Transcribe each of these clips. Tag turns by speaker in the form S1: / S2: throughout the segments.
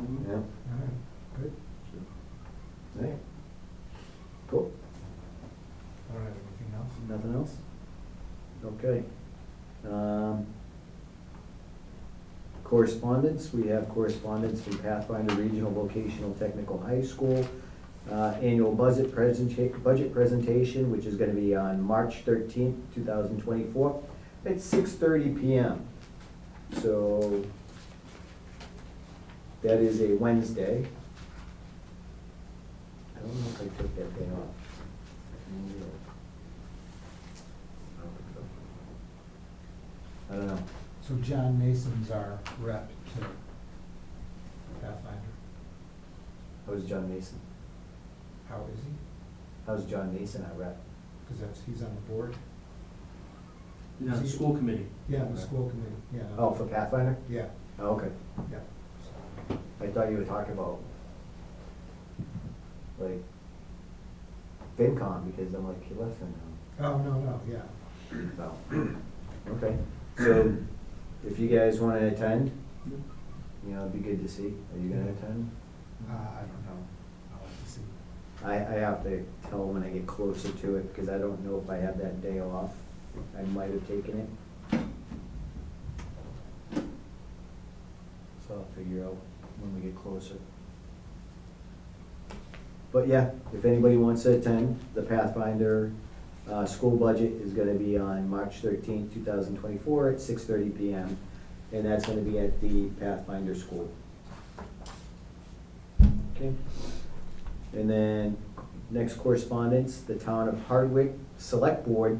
S1: Mhm.
S2: Yeah,
S1: All right, good.
S2: yeah. Cool.
S1: All right, anything else?
S2: Nothing else? Okay. Um, Correspondence, we have correspondence from Pathfinder Regional Vocational Technical High School. uh, Annual budget presentation, budget presentation, which is gonna be on March thirteenth, two thousand twenty-four, at six thirty PM. So that is a Wednesday. I don't know if I took that day off. I don't know.
S1: So John Mason's our rep to Pathfinder.
S2: How's John Mason?
S1: How is he?
S2: How's John Mason our rep?
S1: Because that's, he's on the board.
S3: Yeah, the school committee.
S1: Yeah, the school committee, yeah.
S2: Oh, for Pathfinder?
S1: Yeah,
S2: Oh, okay.
S1: yeah. So,
S2: I thought you were talking about, like, FinCom, because I'm like, he left FinCom.
S1: Oh, no, no, yeah.
S2: No. Okay, so if you guys wanna attend, you know, it'd be good to see. Are you gonna attend?
S1: Uh, I don't know. I'll have to see.
S2: I, I have to tell when I get closer to it, because I don't know if I have that day off. I might have taken it. So I'll figure out when we get closer. But yeah, if anybody wants to attend, the Pathfinder, uh, school budget is gonna be on March thirteenth, two thousand twenty-four at six thirty PM. And that's gonna be at the Pathfinder School. Okay? And then, next correspondence, the town of Hardwick Select Board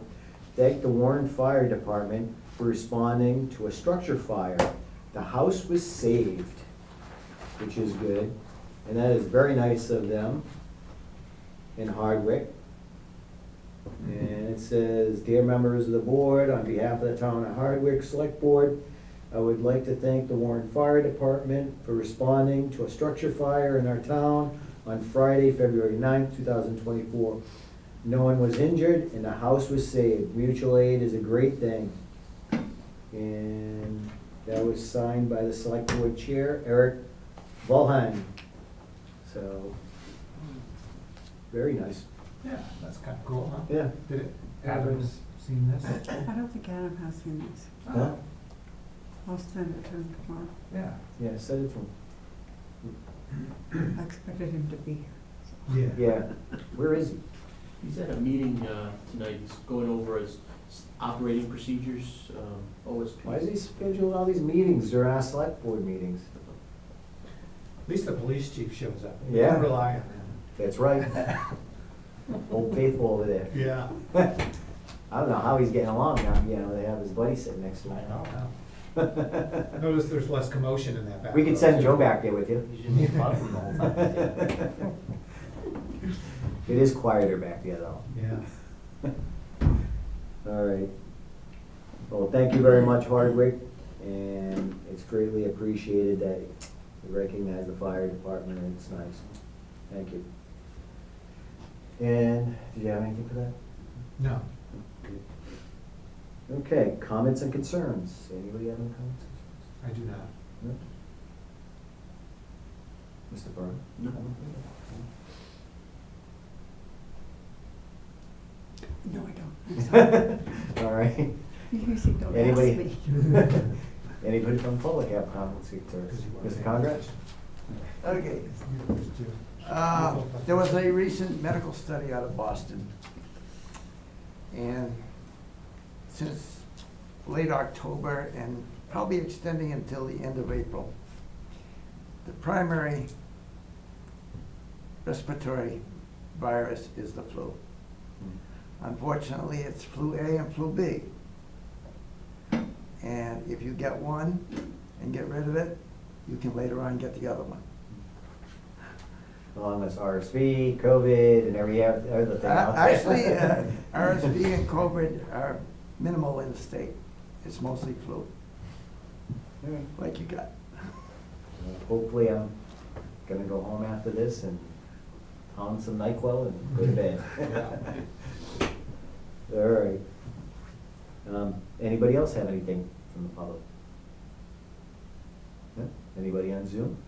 S2: thanked the Warren Fire Department for responding to a structure fire. The house was saved, which is good, and that is very nice of them in Hardwick. And it says, Dear members of the board, on behalf of the town of Hardwick Select Board, I would like to thank the Warren Fire Department for responding to a structure fire in our town on Friday, February 9th, two thousand twenty-four. No one was injured and the house was saved. Mutual aid is a great thing. And that was signed by the select board chair, Eric Volheim. So, very nice.
S1: Yeah, that's kind of cool, huh?
S2: Yeah.
S1: Did it, Adam's seen this? Oh,
S4: I don't think Adam has seen this.
S2: Huh?
S4: I'll send it to him tomorrow.
S1: Yeah.
S2: Yeah, send it to him.
S4: I expected him to be here.
S1: Yeah.
S2: Yeah, where is he?
S3: He's at a meeting uh, tonight, he's going over his s- operating procedures, um, OSP.
S2: Why is he scheduling all these meetings? They're our select board meetings.
S1: At least the police chief shows up. You
S2: Yeah.
S1: can Rely on him.
S2: That's right. Old faithful over there.
S1: Yeah.
S2: I don't know how he's getting along now, you know, they have his buddy sitting next to
S1: I
S2: him.
S1: know. I noticed there's less commotion in that back.
S2: We
S1: row,
S2: could send
S1: too.
S2: Joe back there with you.
S3: He's in the bottom the whole time.
S2: It is quieter back there though.
S1: Yeah.
S2: All right. Well, thank you very much, Hardwick, and it's greatly appreciated that you recognize the fire department, and it's nice. Thank you. And, did you have anything for that?
S1: No.
S2: Okay, comments and concerns. Anybody have any comments?
S1: I do not.
S2: No? Mr. Byrne?
S3: No.
S4: No, I don't. I'm sorry.
S2: All right.
S4: You usually don't ask
S2: Anybody?
S4: me.
S2: Anybody from public have comments or concerns? Mr. Congress?
S5: Okay.
S1: It's Jim.
S5: Uh, There was a recent medical study out of Boston. And since late October and probably extending until the end of April, the primary respiratory virus is the flu.
S2: Hmm.
S5: Unfortunately, it's flu A and flu B. And if you get one and get rid of it, you can later on get the other one.
S2: Along with RSV, COVID, and every oth- other thing
S5: Uh,
S2: out there.
S5: Actually, uh, RSV and COVID are minimal in the state. It's mostly flu,
S2: All right.
S5: like you got.
S2: Uh, Hopefully, I'm gonna go home after this and pound some NyQuil and go to bed. All right. Um, Anybody else have anything from the public? No? Anybody on Zoom?